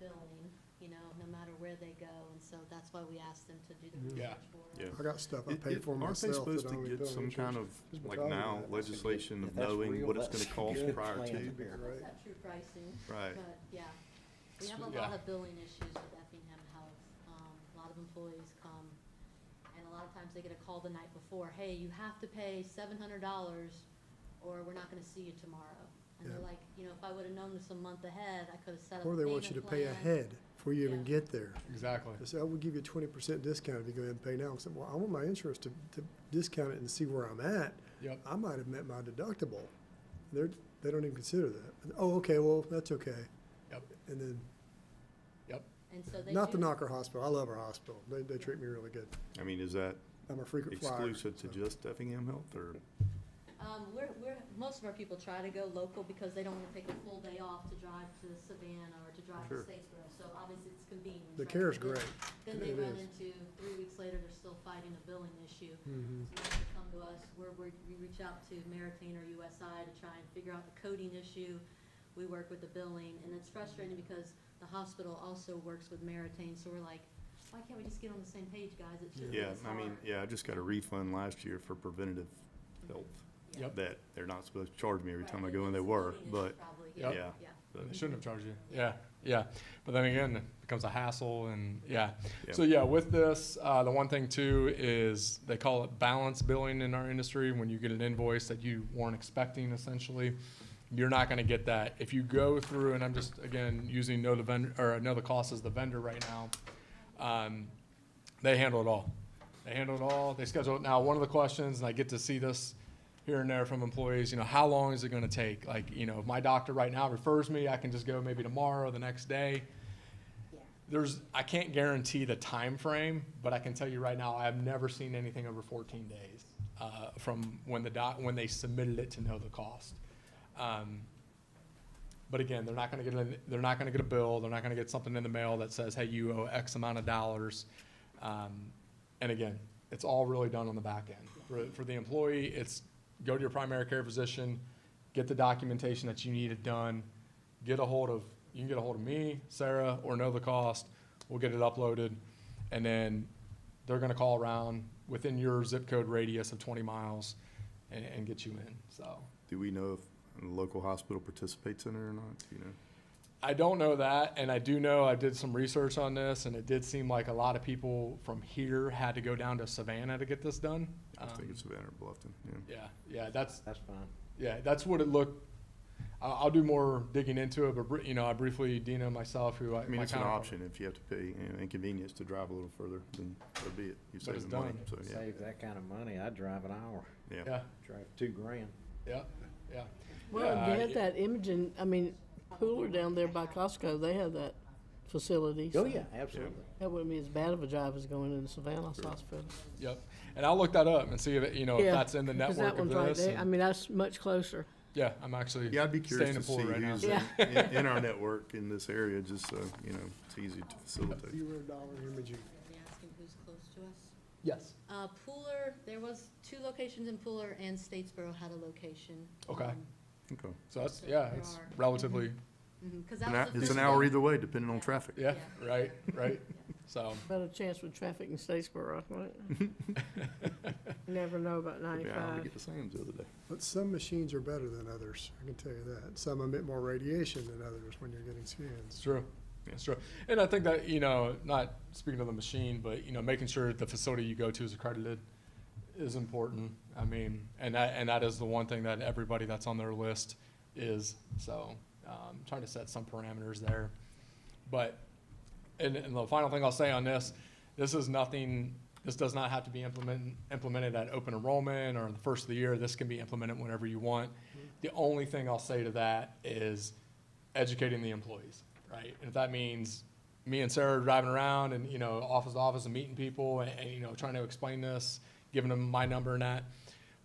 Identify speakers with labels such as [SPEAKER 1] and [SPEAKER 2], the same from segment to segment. [SPEAKER 1] billing, you know, no matter where they go, and so that's why we asked them to do the
[SPEAKER 2] Yeah.
[SPEAKER 1] research for
[SPEAKER 3] Yeah.
[SPEAKER 1] us.
[SPEAKER 2] I got stuff I
[SPEAKER 3] It-
[SPEAKER 2] pay
[SPEAKER 3] it-
[SPEAKER 2] for myself.
[SPEAKER 3] Aren't they
[SPEAKER 2] that I
[SPEAKER 3] supposed
[SPEAKER 2] only
[SPEAKER 3] to get
[SPEAKER 2] bill
[SPEAKER 3] some
[SPEAKER 2] insurance.
[SPEAKER 3] kind of,
[SPEAKER 2] Just
[SPEAKER 3] like
[SPEAKER 2] retire
[SPEAKER 3] now,
[SPEAKER 2] that.
[SPEAKER 3] legislation
[SPEAKER 4] If
[SPEAKER 3] of
[SPEAKER 4] that's
[SPEAKER 3] knowing
[SPEAKER 4] real,
[SPEAKER 3] what it's
[SPEAKER 4] that's
[SPEAKER 3] gonna
[SPEAKER 4] a
[SPEAKER 3] cost
[SPEAKER 4] good
[SPEAKER 3] prior
[SPEAKER 4] plan.
[SPEAKER 3] to?
[SPEAKER 2] That'd be great.
[SPEAKER 1] That's true pricing.
[SPEAKER 3] Right.
[SPEAKER 1] But, yeah, we have a
[SPEAKER 2] Yeah.
[SPEAKER 1] lot of billing issues with Effingham Health. Um, a lot of employees come, and a lot of times they get a call the night before, hey, you have to pay seven hundred dollars, or we're not gonna see you tomorrow. And they're
[SPEAKER 2] Yeah.
[SPEAKER 1] like, you know, if I would've known this a month ahead, I could've set up a
[SPEAKER 2] Or
[SPEAKER 1] payment plan.
[SPEAKER 2] they want you to pay ahead before you even
[SPEAKER 1] Yeah.
[SPEAKER 2] get there.
[SPEAKER 5] Exactly.
[SPEAKER 2] They say, I will give you a twenty percent discount if you go ahead and pay now. I said, well, I want my insurance to, to discount it and see where I'm at.
[SPEAKER 5] Yep.
[SPEAKER 2] I might have met my deductible. They're, they don't even consider that. Oh, okay, well, that's okay.
[SPEAKER 5] Yep.
[SPEAKER 2] And then,
[SPEAKER 5] Yep.
[SPEAKER 1] And so they do.
[SPEAKER 2] not to knock our hospital. I love our hospital. They, they treat me really good.
[SPEAKER 3] I mean, is that
[SPEAKER 2] I'm a frequent flyer.
[SPEAKER 3] exclusive to
[SPEAKER 2] so.
[SPEAKER 3] just Effingham Health or?
[SPEAKER 1] Um, we're, we're, most of our people try to go local because they don't wanna take a full day off to drive to Savannah or to drive to
[SPEAKER 3] Sure.
[SPEAKER 1] Statesboro, so obviously it's convenient.
[SPEAKER 2] The
[SPEAKER 1] right?
[SPEAKER 2] care's
[SPEAKER 1] But then- Then
[SPEAKER 2] great.
[SPEAKER 1] they
[SPEAKER 2] It
[SPEAKER 1] run
[SPEAKER 2] is.
[SPEAKER 1] into, three weeks later, they're still fighting a billing issue.
[SPEAKER 2] Mhm.
[SPEAKER 1] So they have to come to us, where we, we reach out to Meritain or USI to try and figure out the coding issue. We work with the billing, and it's frustrating because the hospital also works with Meritain, so we're like, why can't we just get on the same page, guys? It shouldn't be
[SPEAKER 3] Yeah,
[SPEAKER 1] this
[SPEAKER 3] I mean,
[SPEAKER 1] hard."
[SPEAKER 3] yeah, I just got a refund last year for preventative health
[SPEAKER 1] Yeah.
[SPEAKER 5] Yep.
[SPEAKER 3] that they're not supposed to charge me every
[SPEAKER 1] Right,
[SPEAKER 3] time I
[SPEAKER 1] and
[SPEAKER 3] go in.
[SPEAKER 1] it's
[SPEAKER 3] They
[SPEAKER 1] a
[SPEAKER 3] were,
[SPEAKER 1] coding issue
[SPEAKER 3] but
[SPEAKER 1] Probably,
[SPEAKER 5] Yep.
[SPEAKER 1] yeah,
[SPEAKER 3] yeah.
[SPEAKER 1] yeah.
[SPEAKER 3] but-
[SPEAKER 5] They shouldn't have charged you. Yeah, yeah. But then again, it becomes a hassle and yeah.
[SPEAKER 3] Yeah.
[SPEAKER 5] So yeah, with this, uh, the one thing too is they call it balance billing in our industry. When you get an invoice that you weren't expecting essentially, you're not gonna get that. If you go through, and I'm just, again, using know the vendor, or know the cost as the vendor right now, um, they handle it all. They handle it all. They schedule it. Now, one of the questions, and I get to see this here and there from employees, you know, how long is it going to take? Like, you know, if my doctor right now refers me, I can just go maybe tomorrow or the next day. There's, I can't guarantee the time frame, but I can tell you right now, I have never seen anything over 14 days uh, from when the doc, when they submitted it to know the cost. Um, but again, they're not gonna get, an- they're not gonna get a bill, they're not gonna get something in the mail that says, hey, you owe X amount of dollars. Um, And again, it's all really done on the back end. For, for the employee, it's go to your primary care physician, get the documentation that you needed done, get a hold of, you can get a hold of me, Sarah, or know the cost, we'll get it uploaded. And then they're gonna call around within your zip code radius of twenty miles and, and get you in, so.
[SPEAKER 3] Do we know if the local hospital participates in it or not? Do You know,
[SPEAKER 5] I don't know that, and I do know I did some research on this, and it did seem like a lot of people from here had to go down to Savannah to get this done.
[SPEAKER 3] I just think
[SPEAKER 5] Um,
[SPEAKER 3] it's Savannah or Bluffton, yeah.
[SPEAKER 5] Yeah, yeah, that's
[SPEAKER 4] That's fine.
[SPEAKER 5] yeah, that's what it looked. I'll, I'll do more digging into it, but br- you know, I briefly Dina and myself, who I,
[SPEAKER 3] I mean,
[SPEAKER 5] my
[SPEAKER 3] it's an
[SPEAKER 5] counterpart-
[SPEAKER 3] option. If you have to pay you know, inconvenience to drive a little further, then so be it. You
[SPEAKER 5] But it's
[SPEAKER 3] save the money,
[SPEAKER 5] done.
[SPEAKER 3] so yeah,
[SPEAKER 4] Save that kind of money, I'd drive an hour,
[SPEAKER 3] yeah.
[SPEAKER 5] Yeah,
[SPEAKER 4] drive two grand.
[SPEAKER 5] yeah, yeah.
[SPEAKER 6] Well,
[SPEAKER 5] Uh,
[SPEAKER 6] they had
[SPEAKER 5] it-
[SPEAKER 6] that imaging, I mean, Pooler down there by Costco, they have that facility.
[SPEAKER 4] Oh,
[SPEAKER 6] so
[SPEAKER 4] yeah, absolutely.
[SPEAKER 6] That wouldn't be as bad of a job as going into Savannah's hospital.
[SPEAKER 5] Yep, and I'll look that up and see if it, you know Oh, if
[SPEAKER 6] Yeah,
[SPEAKER 5] that's in the network
[SPEAKER 6] 'cause that one's
[SPEAKER 5] of
[SPEAKER 6] right
[SPEAKER 5] this.
[SPEAKER 6] there.
[SPEAKER 5] and-
[SPEAKER 6] I mean, that's much closer.
[SPEAKER 5] yeah, I'm actually
[SPEAKER 3] Yeah, I'd be
[SPEAKER 5] staying
[SPEAKER 3] curious to
[SPEAKER 5] in
[SPEAKER 3] see
[SPEAKER 5] Florida right now.
[SPEAKER 3] who's in, in in our network in this area, just so, you know, it's easy to facilitate.
[SPEAKER 2] Zero dollar imaging.
[SPEAKER 1] Are they asking who's close to us?
[SPEAKER 5] Yes.
[SPEAKER 1] Uh, Pooler, there was two locations in Pooler and Statesboro had a location. Um,
[SPEAKER 5] Okay.
[SPEAKER 3] Okay.
[SPEAKER 5] So that's
[SPEAKER 1] So
[SPEAKER 5] yeah,
[SPEAKER 1] there
[SPEAKER 5] it's
[SPEAKER 1] are-
[SPEAKER 5] relatively
[SPEAKER 1] Because
[SPEAKER 3] An
[SPEAKER 1] mhm, that was
[SPEAKER 3] hou-
[SPEAKER 1] the
[SPEAKER 3] It's
[SPEAKER 1] first
[SPEAKER 3] an hour
[SPEAKER 1] one.
[SPEAKER 3] either way, depending on traffic.
[SPEAKER 5] yeah,
[SPEAKER 1] Yeah.
[SPEAKER 5] right, right. So.
[SPEAKER 6] Better chance with traffic in Statesboro, right? Never know about
[SPEAKER 3] Yeah, I
[SPEAKER 6] ninety-five.
[SPEAKER 3] get the Sam's the other day.
[SPEAKER 2] But some machines are better than others, I can tell you that. Some emit more radiation than others when you're getting
[SPEAKER 5] It's
[SPEAKER 2] scans.
[SPEAKER 5] true. It's true. And I think that, you know, not speaking to the machine, but, you know, making sure that the facility you go to is accredited is important. I mean, and that, and that is the one thing that everybody that's on their list is. So, um, trying to set some parameters there. But, and, and the final thing I'll say on this, this is nothing, this does not have to be implemented, implemented at open enrollment or the first of the year. This can be implemented whenever you want. The only thing I'll say to that is educating the employees, right? And if that means me and Sarah driving around and, you know, office to office and meeting people and, and, you know, trying to explain this, giving them my number and that.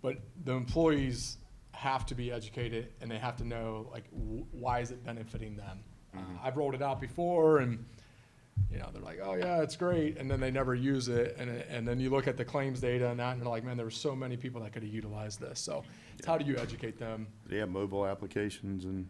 [SPEAKER 5] But the employees have to be educated and they have to know, like, w- why is it benefiting them? Uh, I've rolled it out before and, you know, they're like, oh yeah, it's great, and then they never use it, and and then you look at the claims data and that, and you're like, man, there were so many people that could have utilized this. So, it's how do you educate them?
[SPEAKER 3] They have mobile applications and